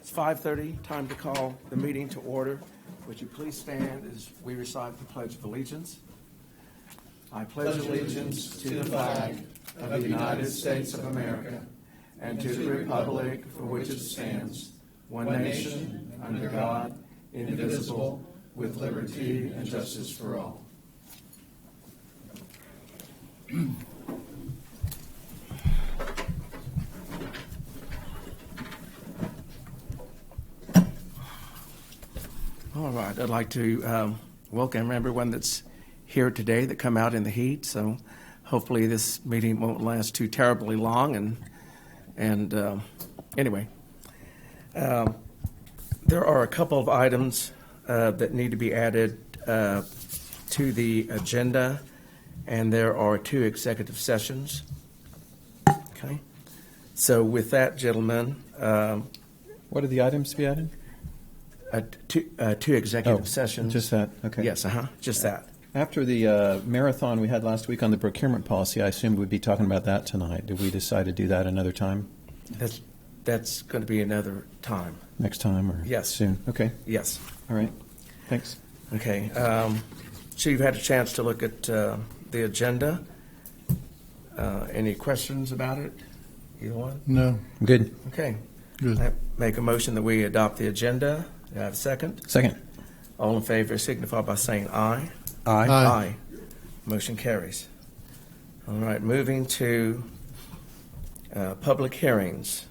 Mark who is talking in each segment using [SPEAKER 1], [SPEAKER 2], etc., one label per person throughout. [SPEAKER 1] It's 5:30, time to call the meeting to order. Would you please stand as we recite the Pledge of Allegiance? I pledge allegiance to the flag of the United States of America and to the republic for which it stands, one nation, under God, indivisible, with liberty and justice for all. All right, I'd like to um, welcome everyone that's here today that come out in the heat. So hopefully this meeting won't last too terribly long. And and uh, anyway, um, there are a couple of items uh, that need to be added uh, to the agenda, and there are two executive sessions. Okay, so with that, gentlemen, um,
[SPEAKER 2] What are the items to be added?
[SPEAKER 1] uh, two, uh, two executive sessions.
[SPEAKER 2] Oh, Just that, okay.
[SPEAKER 1] Yes, uh huh, just that.
[SPEAKER 2] After the uh, marathon we had last week on the procurement policy, I assumed we'd be talking about that tonight. Did we decide to do that another time,
[SPEAKER 1] That's, that's going to be another time.
[SPEAKER 2] next time, or?
[SPEAKER 1] Yes.
[SPEAKER 2] Soon, okay,
[SPEAKER 1] Yes.
[SPEAKER 2] all right, thanks.
[SPEAKER 1] Okay. Um, so you've had a chance to look at uh, the agenda. Uh, any questions about it? Either one?
[SPEAKER 3] No,
[SPEAKER 2] Good.
[SPEAKER 1] Okay.
[SPEAKER 3] Good.
[SPEAKER 1] I make a motion that we adopt the agenda. Do I have a second?
[SPEAKER 2] Second.
[SPEAKER 1] All in favor signify by saying aye.
[SPEAKER 3] Aye.
[SPEAKER 1] Motion carries. All right, moving to uh, public hearings.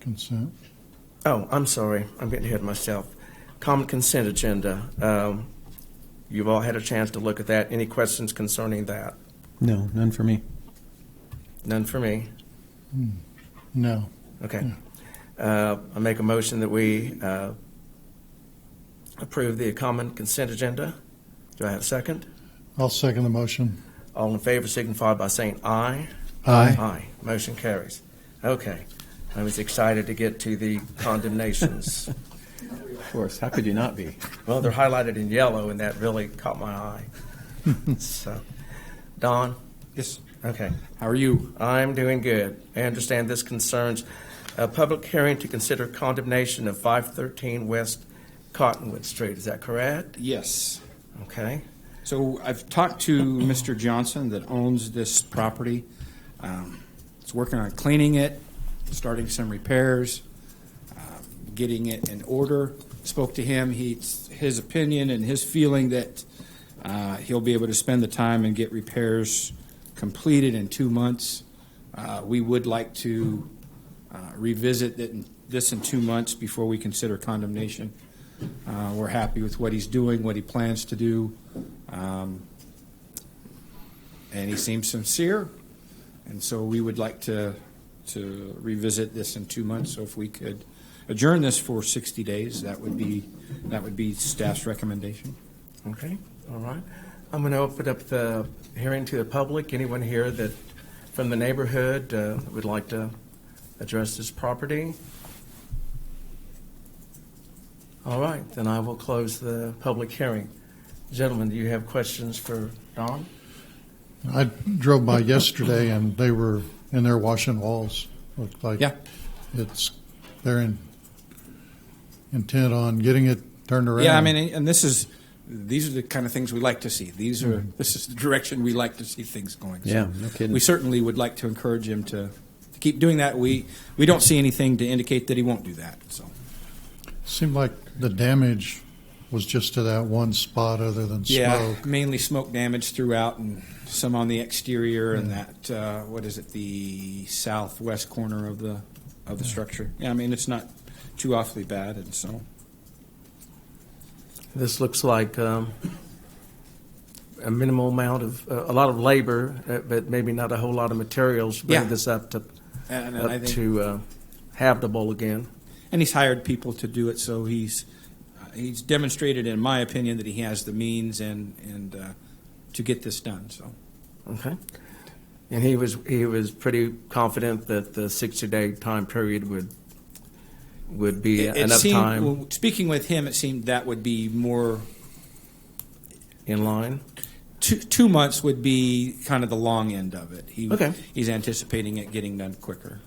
[SPEAKER 3] consent.
[SPEAKER 1] Oh, I'm sorry. I'm getting ahead of myself. Common consent agenda. Um, You've all had a chance to look at that. Any questions concerning that?
[SPEAKER 2] No, none for me.
[SPEAKER 1] None for me.
[SPEAKER 3] No,
[SPEAKER 1] Okay. Uh, I make a motion that we uh, approve the common consent agenda. Do I have a second?
[SPEAKER 3] I'll second the motion.
[SPEAKER 1] All in favor signify by saying aye.
[SPEAKER 3] Aye.
[SPEAKER 1] Aye. Motion carries. Okay. I was excited to get to the condemnations.
[SPEAKER 2] Of course, how could you not be?
[SPEAKER 1] Well, they're highlighted in yellow, and that really caught my eye. so, Don?
[SPEAKER 4] Yes.
[SPEAKER 1] Okay.
[SPEAKER 4] How are you?
[SPEAKER 1] I'm doing good. I understand this concerns a public hearing to consider condemnation of 513 West Cottonwood Street. Is that correct?
[SPEAKER 4] Yes.
[SPEAKER 1] Okay.
[SPEAKER 4] So I've talked to Mr. Johnson that owns this property. Um, He's working on cleaning it, starting some repairs, um, getting it in order. Spoke to him, he's, his opinion and his feeling that uh, he'll be able to spend the time and get repairs completed in two months. Uh, We would like to uh, revisit it in- this in two months before we consider condemnation. Uh, We're happy with what he's doing, what he plans to do. Um, And he seems sincere, and so we would like to, to revisit this in two months. So if we could adjourn this for 60 days, that would be, that would be staff's recommendation.
[SPEAKER 1] Okay. All right. I'm going to open up the hearing to the public. Anyone here that from the neighborhood uh, would like to address this property? All right. Then I will close the public hearing. Gentlemen, do you have questions for Don?
[SPEAKER 3] I drove by yesterday and they were in there washing walls. Looked like
[SPEAKER 4] Yeah.
[SPEAKER 3] it's, they're in, intent on getting it turned around.
[SPEAKER 4] Yeah, I mean, and this is, these are the kind of things we like to see. These are, this is the direction we like to see things going. So
[SPEAKER 2] Mm-hmm. Yeah, no kidding.
[SPEAKER 4] We certainly would like to encourage him to, to keep doing that. We, we don't see anything to indicate that he won't do that, so.
[SPEAKER 3] Seemed like the damage was just to that one spot other than
[SPEAKER 4] Yeah,
[SPEAKER 3] smoke.
[SPEAKER 4] mainly smoke damage throughout and some on the exterior and that, uh, what is it, the southwest corner of the, of the structure. Yeah, I mean, it's not too awfully bad and so.
[SPEAKER 1] This looks like um, a minimal amount of, uh, a lot of labor, uh, but maybe not a whole lot of materials. to Bring
[SPEAKER 4] Yeah.
[SPEAKER 1] this up to,
[SPEAKER 4] And I
[SPEAKER 1] up
[SPEAKER 4] think,
[SPEAKER 1] to uh, habitable again.
[SPEAKER 4] and he's hired people to do it, so he's, uh, he's demonstrated, in my opinion, that he has the means and, and, uh, to get this done, so.
[SPEAKER 1] Okay. And he was, he was pretty confident that the 60-day time period would, would be
[SPEAKER 4] It- it
[SPEAKER 1] enough
[SPEAKER 4] seemed-
[SPEAKER 1] time
[SPEAKER 4] well, Speaking with him, it seemed that would be more
[SPEAKER 1] in line?
[SPEAKER 4] two, two months would be kind of the long end of it. He,
[SPEAKER 1] Okay.
[SPEAKER 4] He's anticipating it getting done quicker.